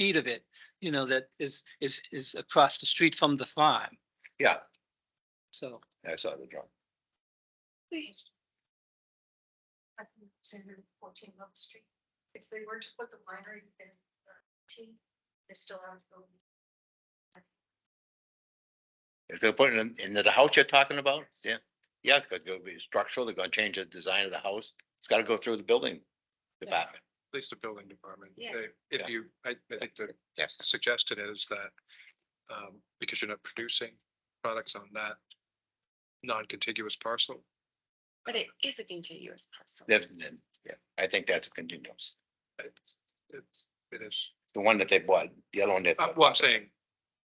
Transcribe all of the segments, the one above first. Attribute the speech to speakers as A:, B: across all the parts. A: feet of it, you know, that is, is, is across the street from the farm.
B: Yeah.
A: So,
B: I saw the drawing.
C: Fourteen Love Street. If they were to put the winery in uh, T, they still have. to go.
B: If they're putting in, in the house you're talking about, yeah, yeah, it could go be structural, they're gonna change the design of the house. It's gotta go through the building department.
D: At least the building department.
C: Yeah.
D: They- If
B: Yeah.
D: you, I, I think the suggested is that, um, because you're not producing products on that non-contiguous parcel,
E: But it is a contiguous parcel.
B: Then, then, yeah, I think that's a continuous.
D: it's, it's, it is,
B: The one that they bought, the other one that.
D: uh, well, I'm saying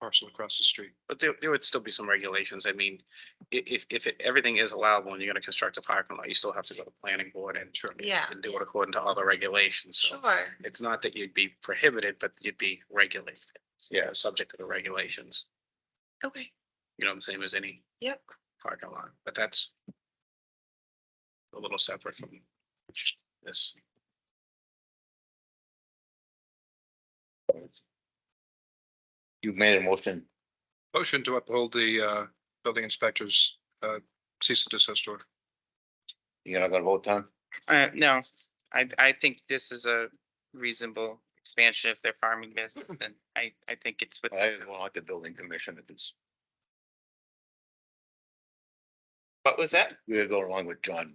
D: parcel across the street.
F: But there, there would still be some regulations. I mean, i- if, if it- everything is allowable and you're gonna construct a parking lot, you still have to go to planning board and.
E: Yeah.
F: And do it according to all the regulations. So
E: Sure.
F: it's not that you'd be prohibited, but you'd be regulated. Yeah, subject to the regulations,
E: Okay.
F: you know, the same as any.
E: Yep.
F: Parking lot, but that's. A little separate from this.
B: You made a motion,
D: Motion to uphold the, uh, building inspector's, uh, cease and desist order.
B: you're not gonna vote, Tom?
G: Uh, no, I, I think this is a reasonable expansion of their farming business, and I, I think it's with.
B: I don't like the building commission if it's,
G: What was that?
B: we're going along with John.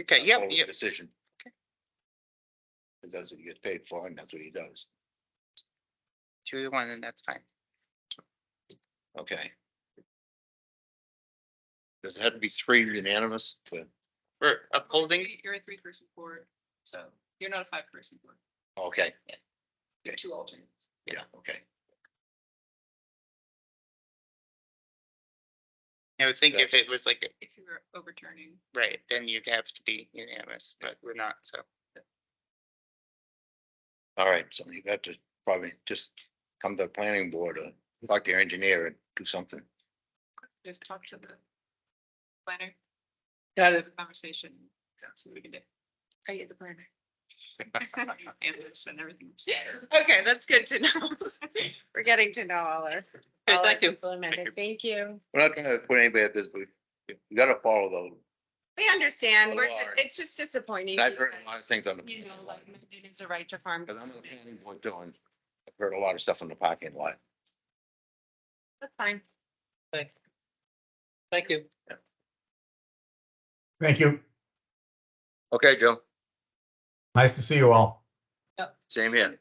G: Okay,
B: That's
G: yep,
B: all the
G: yep,
B: Decision. Because that's what he gets paid for and that's what he does.
G: two to one, and that's fine.
B: Okay. Does it have to be three unanimous to,
G: We're upholding,
H: You're a three person board, so you're not a five person board,
B: okay,
H: you're two alternates.
B: yeah, okay.
G: I would think if it was like,
H: If you're overturning,
G: right, then you'd have to be unanimous, but we're not, so.
B: All right, so you got to probably just come to the planning board or talk to your engineer and do something.
H: just talk to the planner,
A: got
H: have
A: it.
H: a conversation, see what we can do.
E: Are you the planner?
H: And this and everything.
E: Okay, that's good to know. We're getting to know all our.
H: Okay,
E: all our
H: thank you.
E: people a minute.
F: Thank you.
E: Thank you.
B: We're not gonna put anybody at this, but you gotta follow those.
E: We understand.
B: Oh,
E: We're,
B: Lord.
E: it's just disappointing.
B: And I've heard a lot of
E: because,
B: things on the.
E: You know, like, it is a right to farm.
B: Cause I'm on the planning board doing, I've heard a lot of stuff in the parking lot.
E: That's fine.
A: Thank you.
I: Thank you.
B: Okay, Joe.
I: Nice to see you all.
B: Same here.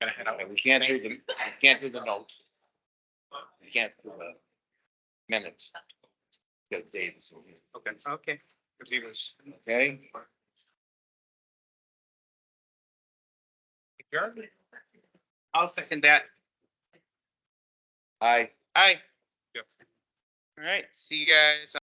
F: Gonna head out.
B: We can't do the, we can't do the notes. We can't do the minutes. Got Davis in here,
D: Okay.
G: Okay.
D: If he was.
B: okay?
G: I'll second that.
B: Aye.
G: Aye.
D: Yep.
G: All right, see you guys